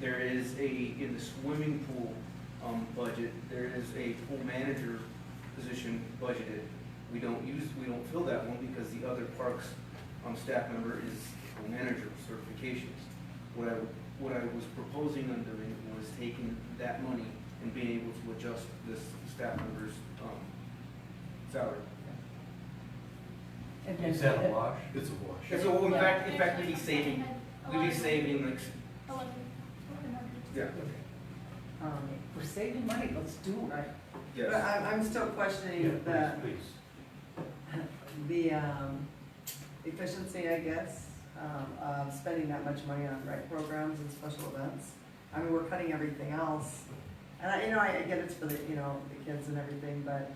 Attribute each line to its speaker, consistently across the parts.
Speaker 1: There is a, in the swimming pool, um, budget, there is a pool manager position budgeted. We don't use, we don't fill that one because the other parks, um, staff member is pool manager certifications. What I, what I was proposing on doing was taking that money and being able to adjust this staff member's, um, salary.
Speaker 2: And then-
Speaker 3: Is that a wash?
Speaker 4: It's a wash.
Speaker 1: And so in fact, in fact, we'd be saving, we'd be saving like,
Speaker 5: Eleven, eleven
Speaker 1: yeah,
Speaker 2: Um, We're saving money, let's do it right.
Speaker 6: But
Speaker 1: yes.
Speaker 6: I'm, I'm still
Speaker 3: Yeah,
Speaker 6: questioning the,
Speaker 3: please, please.
Speaker 6: the, um, efficiency, I guess, um, of spending that much money on rec programs and special events. I mean, we're cutting everything else, and I, you know, I I get it's for the, you know, the kids and everything, but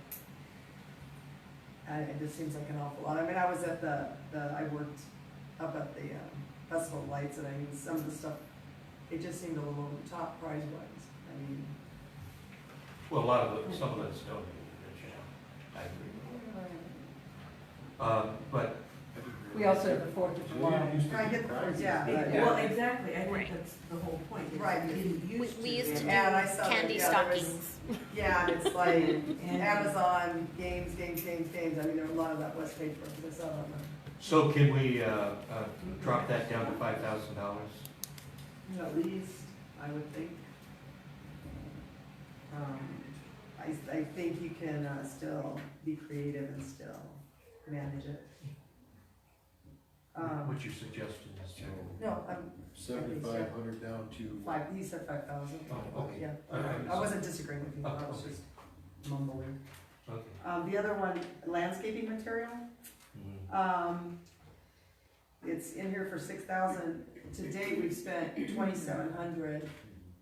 Speaker 6: I, it just seems like an awful lot. I mean, I was at the, the, I worked up at the, um, Festival of Lights, and I mean, some of the stuff, it just seemed a little over the top prize-wise, I mean.
Speaker 3: Well, a lot of, the- some of that's donated, Rich, yeah. I agree. Um, But
Speaker 2: We also have the Fourth of July.
Speaker 6: I get the first, yeah, but-
Speaker 1: Yeah.
Speaker 7: Well, exactly, I
Speaker 8: Right.
Speaker 7: think that's the whole point. is
Speaker 6: Right.
Speaker 7: We didn't
Speaker 8: We,
Speaker 7: used to.
Speaker 8: we used to do
Speaker 6: Yeah, and I saw that,
Speaker 8: candy
Speaker 6: yeah, there was-
Speaker 8: stockings.
Speaker 6: Yeah, and it's like
Speaker 7: And-
Speaker 6: Amazon, games, games, games, games, I mean, there were a lot of that was paid for, but it's not on the,
Speaker 3: So can we uh, uh, drop that down to five thousand dollars?
Speaker 6: at least, I would think. Um, I, I think you can, uh, still be creative and still manage it. Um,
Speaker 3: What's your suggestion, Mr. Chairman?
Speaker 6: no, I'm
Speaker 4: Seventy-five hundred down to.
Speaker 6: five, you said five thousand,
Speaker 3: Oh, okay.
Speaker 6: yeah,
Speaker 3: All right.
Speaker 6: I wasn't disagreeing with you, I was
Speaker 3: Okay.
Speaker 6: just mumbling.
Speaker 3: Okay.
Speaker 6: Um, the other one, landscaping material?
Speaker 3: Mhm.
Speaker 6: Um, it's in here for six thousand, to date, we've spent twenty-seven hundred.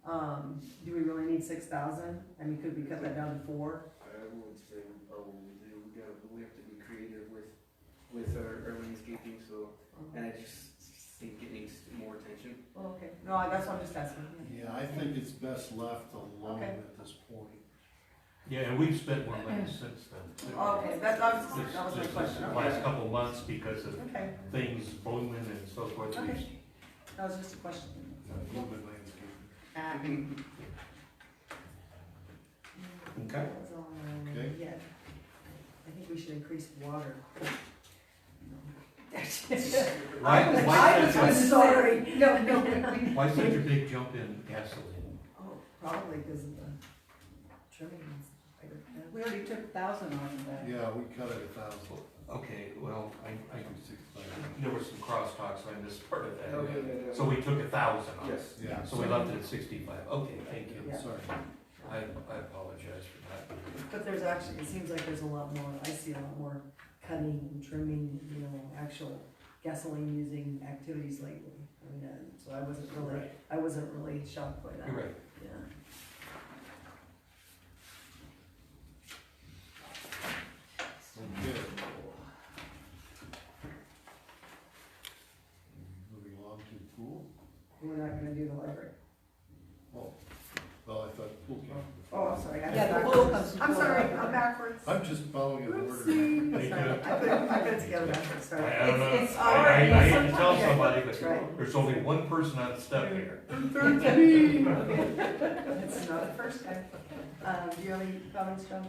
Speaker 6: Um, do we really need six thousand? I mean, could we cut that down to four?
Speaker 1: I would say, oh, we do, we gotta, we have to be creative with, with our, our landscaping, so, and I just think it needs more attention.
Speaker 6: Oh, Okay, no, I- that's what I'm just asking.
Speaker 4: Yeah, I think it's best left alone
Speaker 6: Okay.
Speaker 4: at this point.
Speaker 3: Yeah, and we've spent more money since then. too.
Speaker 6: Okay, that, that was,
Speaker 3: This-
Speaker 6: that was my
Speaker 3: this-
Speaker 6: question,
Speaker 3: This
Speaker 6: okay.
Speaker 3: last couple months because of
Speaker 6: Okay,
Speaker 3: things blooming and so forth.
Speaker 6: Okay.
Speaker 3: we've- uh,
Speaker 6: that was just a question.
Speaker 4: Movement landscape.
Speaker 6: Ah,
Speaker 3: Okay.
Speaker 6: that's all I-
Speaker 4: Okay.
Speaker 6: Yeah, I think we should increase water.
Speaker 3: Why,
Speaker 6: I
Speaker 3: why,
Speaker 6: was
Speaker 3: such
Speaker 6: just-
Speaker 3: a-
Speaker 6: sorry.
Speaker 2: No, no, we-
Speaker 3: why such a big jump in gasoline?
Speaker 6: Oh, probably because of the trimmings. I don't know.
Speaker 2: we already took a thousand off of that.
Speaker 4: Yeah, we cut it a thousand.
Speaker 3: Okay, well, I, I,
Speaker 4: Sixty-five.
Speaker 3: there were some crosstalks, so I missed part of that.
Speaker 1: Okay.
Speaker 3: So we took a thousand off.
Speaker 1: Yes.
Speaker 4: Yeah.
Speaker 3: So we left it at sixty-five. Okay, thank you.
Speaker 4: Yeah, Sorry.
Speaker 3: I, I apologize for that.
Speaker 6: But there's actually, it seems like there's a lot more, I see a lot more cutting and trimming, you know, actual gasoline using activities lately. I mean, uh, so I wasn't really,
Speaker 3: Right.
Speaker 6: I wasn't really shocked by that.
Speaker 3: You're right.
Speaker 6: Yeah.
Speaker 4: Okay. Moving along to the pool.
Speaker 6: We're not gonna do the library.
Speaker 4: Oh, well, I thought pool came.
Speaker 6: Oh, I'm sorry. I-
Speaker 2: Yeah, the pool comes
Speaker 6: I'm
Speaker 2: before
Speaker 6: sorry,
Speaker 2: that.
Speaker 6: I'm backwards.
Speaker 4: I'm just following an order.
Speaker 6: Oopsie.
Speaker 3: Thank you.
Speaker 6: I put, I put it together backwards, sorry.
Speaker 3: I, I don't know,
Speaker 6: It's- it's
Speaker 3: I, I, I
Speaker 6: already-
Speaker 3: hate to tell somebody, but
Speaker 6: That's right.
Speaker 3: there's only one person on step here.
Speaker 6: It's not the first time. Uh, do you have any comments, John?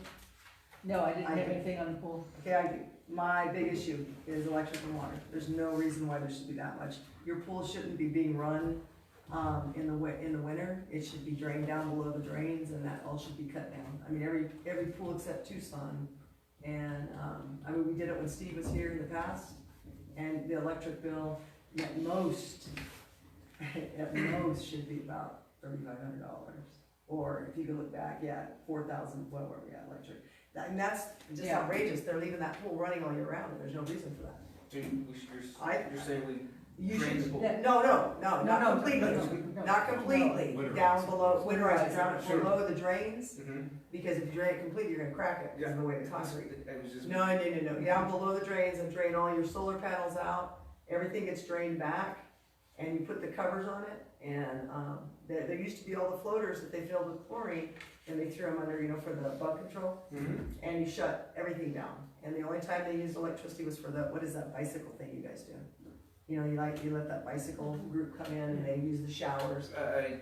Speaker 2: No, I didn't have anything on the pool.
Speaker 6: Okay, I, my big issue is electric and water. There's no reason why there should be that much. Your pool shouldn't be being run, um, in the wi- in the winter. It should be drained down below the drains and that all should be cut down. I mean, every, every pool except Tucson. And, um, I mean, we did it when Steve was here in the past and the electric bill at most, at most should be about thirty-five hundred dollars. Or if you could look back, yeah, four thousand, what were we at electric? That- And that's just
Speaker 2: Yeah.
Speaker 6: outrageous, they're leaving that pool running all year round, and there's no reason for that.
Speaker 1: So you- we should-
Speaker 6: I-
Speaker 1: You're, you're saying we
Speaker 6: You
Speaker 1: drain the
Speaker 6: should,
Speaker 1: pool?
Speaker 2: that-
Speaker 6: no, no, no,
Speaker 2: No,
Speaker 6: not
Speaker 2: no,
Speaker 6: completely,
Speaker 2: no, no, no.
Speaker 6: not completely,
Speaker 4: Winterize.
Speaker 6: down below, winterize,
Speaker 2: Winterize,
Speaker 6: down
Speaker 1: sure.
Speaker 6: below the drains,
Speaker 1: Mhm.
Speaker 6: because if you drain it completely, you're gonna crack it, because of the way the concrete.
Speaker 1: I was just.
Speaker 6: No, no, no, no, down below the drains and drain all your solar panels out, everything gets drained back, and you put the covers on it, and, um, there, there used to be all the floaters that they filled with chlorine, and they threw them under, you know, for the bug control
Speaker 1: Mhm.
Speaker 6: and you shut everything down. And the only time they used electricity was for the, what is that bicycle thing you guys do? You know, you like, you let that bicycle group come in and they use the showers.
Speaker 1: I, I